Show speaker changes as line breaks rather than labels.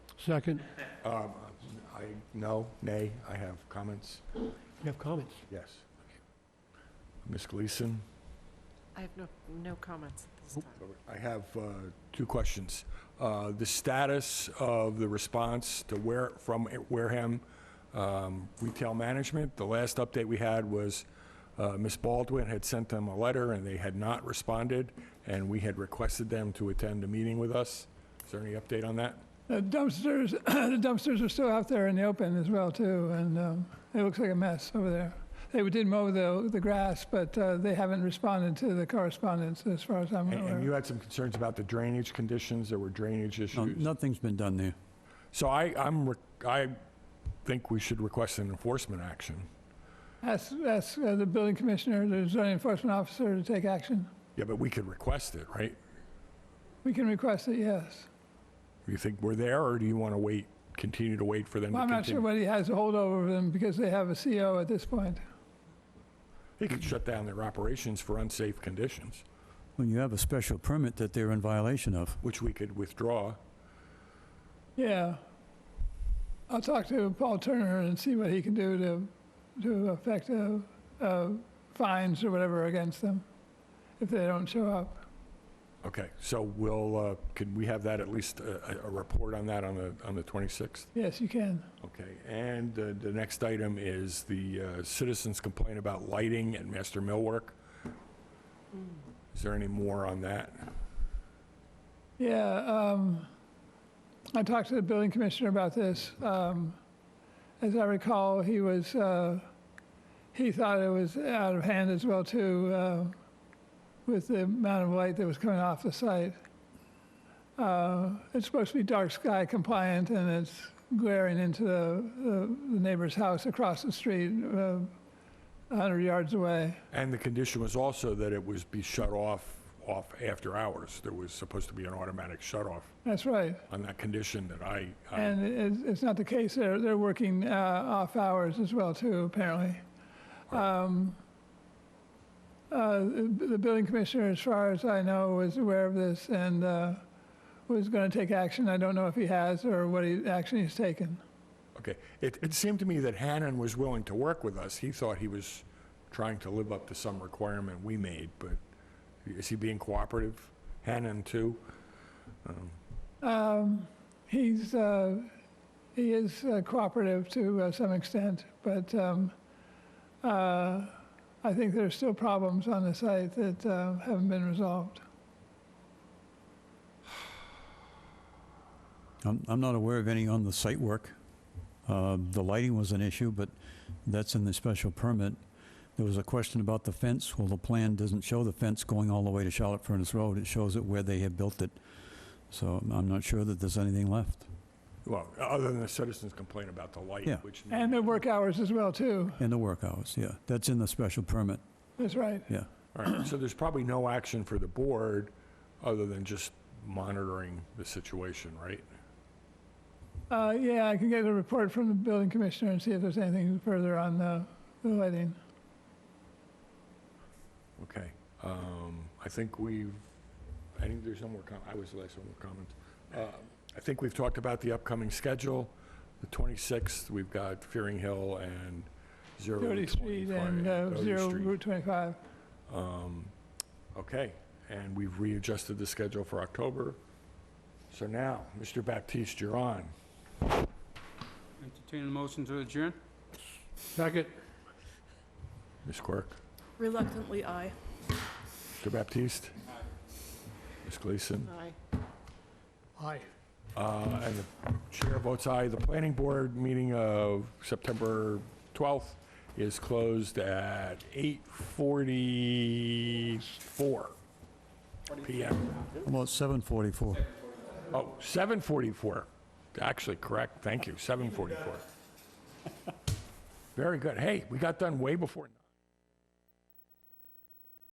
Second,
Um, I, no, nay, I have comments,
you have comments?
yes. Ms. Gleason?
I have no, no comments at this time.
I have uh, two questions. Uh, The status of the response to where, from Wareham um, Retail Management, the last update we had was uh, Ms. Baldwin had sent them a letter, and they had not responded, and we had requested them to attend a meeting with us. Is there any update on that?
The dumpsters, the dumpsters are still out there in the open as well too, and um, it looks like a mess over there. They did mow the, the grass, but uh, they haven't responded to the correspondence as far as I'm
And-
uh,
And you
aware.
had some concerns about the drainage conditions, there were drainage
No,
issues.
nothing's been done there.
So I, I'm, re- I think we should request an enforcement action.
Ask, ask uh, the building commissioner, the zoning enforcement officer to take action.
Yeah, but we could request it, right?
We can request it, yes.
You think we're there, or do you want to wait, continue to wait for them to
Well, I'm
continue?
not sure what he has to hold over them because they have a CO at this point.
They could shut down their operations for unsafe conditions,
When you have a special permit that they're in violation of.
which we could withdraw.
Yeah. I'll talk to Paul Turner and see what he can do to, to affect uh, uh, fines or whatever against them if they don't show up.
Okay, so we'll, uh, can we have that, at least uh, a, a- a report on that on the, on the 26th?
Yes, you can.
Okay, and uh, the next item is the uh, citizens' complaint about lighting at Master Millwork. Is there any more on that?
Yeah, um, I talked to the building commissioner about this. Um, as I recall, he was, uh, he thought it was out of hand as well too, uh, with the amount of light that was coming off the site. Uh, it's supposed to be dark sky compliant and it's glaring into the, the, the neighbor's house across the street, uh, 100 yards away.
And the condition was also that it was be shut off, off after hours. There was supposed to be an automatic shut off
That's right.
on that condition that I, I-
And it's, it's not the case, they're, they're working uh, off hours as well too, apparently. Um, uh, The the building commissioner, as far as I know, was aware of this and uh, was going to take action. I don't know if he has or what he, action he's taken.
okay. It, it seemed to me that Hannon was willing to work with us. He thought he was trying to live up to some requirement we made, but is he being cooperative? Hannon too?
Um, He's, uh, he is uh, cooperative to uh, some extent, but um, uh, I think there's still problems on the site that uh, haven't been resolved.
I'm, I'm not aware of any on the site work. Uh, The lighting was an issue, but that's in the special permit. There was a question about the fence. Well, the plan doesn't show the fence going all the way to Charlotte Furnace Road. It shows it where they have built it. So I'm not sure that there's anything left.
Well, other than the citizens' complaint about the light,
Yeah.
which.
And their work hours as well too,
In the work hours, yeah. That's in the special permit,
that's right.
yeah.
All right, so there's probably no action for the board, other than just monitoring the situation, right?
Uh, Yeah, I can get a report from the building commissioner and see if there's anything further on the the lighting.
Okay, um, I think we've, I think there's no more com, I was the last one with comments. Uh, I think we've talked about the upcoming schedule, the 26th, we've got Fearing Hill and Zero
Doherty
Route
Street
25,
and uh,
Doherty
Zero
Street.
Route 25.
Um, Okay, and we've readjusted the schedule for October. So now, Mr. Baptiste, you're on.
Entertain a motion to adjourn?
Second,
Ms. Quirk,
Reluctantly, aye.
Mr. Baptiste? Ms. Gleason?
Aye.
aye.
Uh, And the chair votes aye. The planning board meeting of September 12th is closed at 8:44 PM.
About 7:44.
Oh, 7:44. Actually, correct. Thank you. 7:44. Very good. Hey, we got done way before.